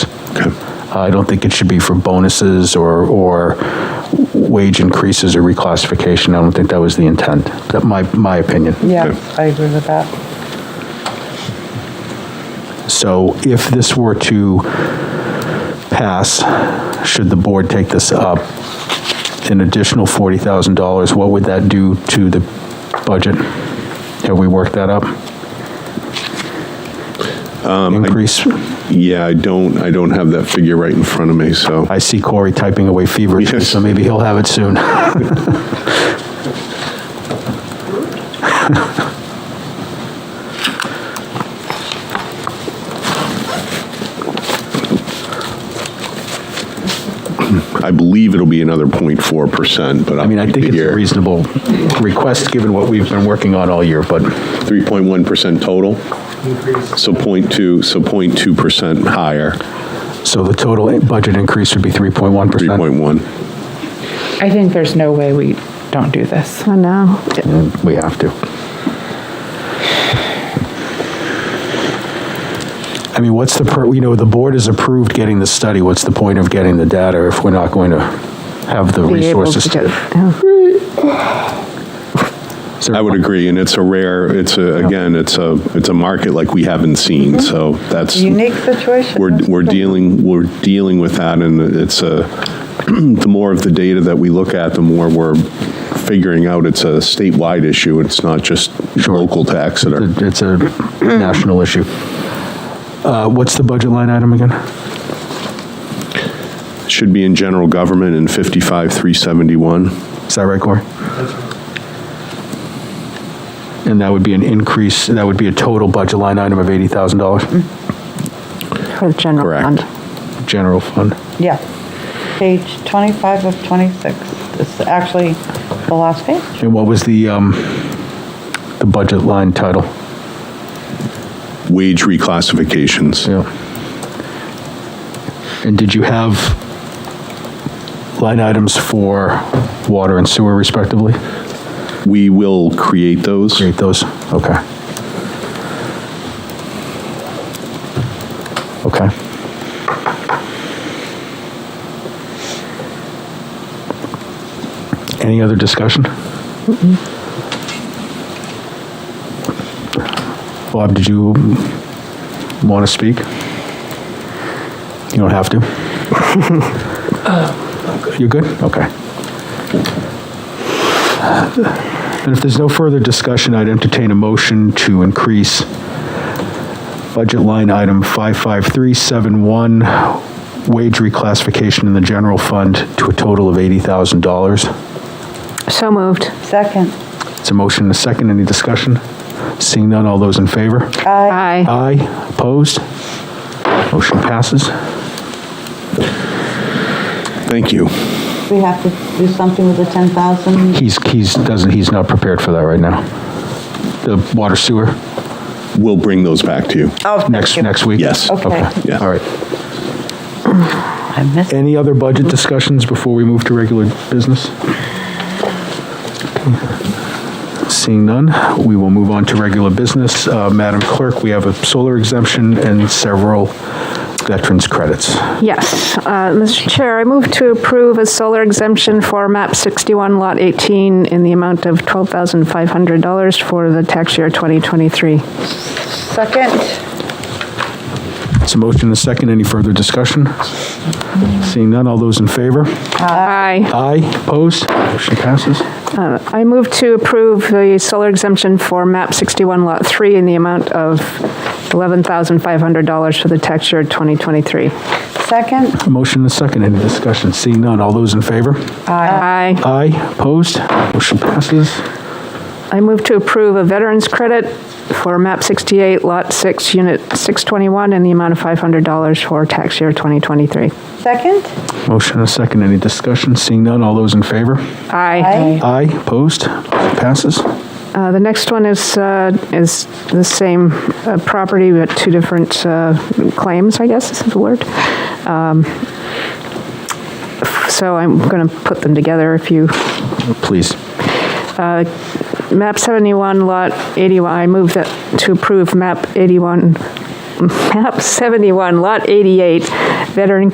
Uh, I don't think it should be for bonuses or, or wage increases or reclassification. I don't think that was the intent. That my, my opinion. Yeah, Okay. I agree with that. So if this were to pass, should the board take this up, an additional $40,000, what would that do to the budget? Have we worked that up? Increase, Yeah, I don't, I don't have that figure right in front of me, so. I see Corey typing away feverishly, Yes. so maybe he'll have it soon. I believe it'll be another 0.4%, but. I mean, I think it's a reasonable request, given what we've been working on all year, but 3.1% total, so 0.2, so 0.2% higher, so the total budget increase would be 3.1%. 3.1. I think there's no way we don't do this. I know. And We have to. I mean, what's the, per- you know, the board has approved getting the study. What's the point of getting the data if we're not going to have the Be able to resources? do- yeah. Is there- I would agree, and it's a rare, it's a, again, it's a, it's a market like we haven't seen, so that's. Unique situation. We're, we're dealing, we're dealing with that, and it's a, the more of the data that we look at, the more we're figuring out it's a statewide issue, it's not just local to Exeter. It's a it's a national issue. Uh, What's the budget line item again? Should be in general government in 55,371. Is that right, Corey? And that would be an increase, that would be a total budget line item of $80,000, For the general Correct. fund. general fund. Yeah. Page 25 of 26. It's actually the last page. And what was the, um, the budget line title? Wage reclassifications. Yeah. And did you have line items for water and sewer respectively? We will create those. Create those, okay. Okay. Any other discussion? Bob, did you want to speak? You don't have to? You're good? Okay. And if there's no further discussion, I'd entertain a motion to increase budget line item 55371, wage reclassification in the general fund to a total of $80,000. So moved. Second. It's a motion and a second. Any discussion? Seeing none, all those in favor? Aye. Aye. Aye. Opposed? Motion passes. Thank you. We have to do something with the 10,000. He's, he's, doesn't, he's not prepared for that right now. The water sewer, We'll bring those back to you. Oh, next, next week? Yes. Okay. Yeah. All right. I missed. Any other budget discussions before we move to regular business? Seeing none, we will move on to regular business. Uh, Madam Clerk, we have a solar exemption and several veterans credits. Yes. Uh, Mr. Chair, I move to approve a solar exemption for MAP 61, Lot 18, in the amount of $12,500 for the tax year 2023. Second. It's a motion and a second. Any further discussion? Seeing none, all those in favor? Aye. Aye, opposed? Motion passes. Uh, I move to approve the solar exemption for MAP 61, Lot 3, in the amount of $11,500 for the tax year 2023. Second. A motion and a second. Any discussion? Seeing none, all those in favor? Aye. Aye, opposed? Motion passes. I move to approve a veterans credit for MAP 68, Lot 6, Unit 621, in the amount of $500 for tax year 2023. Second. Motion and a second. Any discussion? Seeing none, all those in favor? Aye. Aye, opposed, passes. Uh, The next one is, uh, is the same uh, property, but two different uh, claims, I guess is the word. Um, So I'm going to put them together if you Please. MAP 71, Lot 81, I move that, to approve MAP 81, MAP 71, Lot 88, Veteran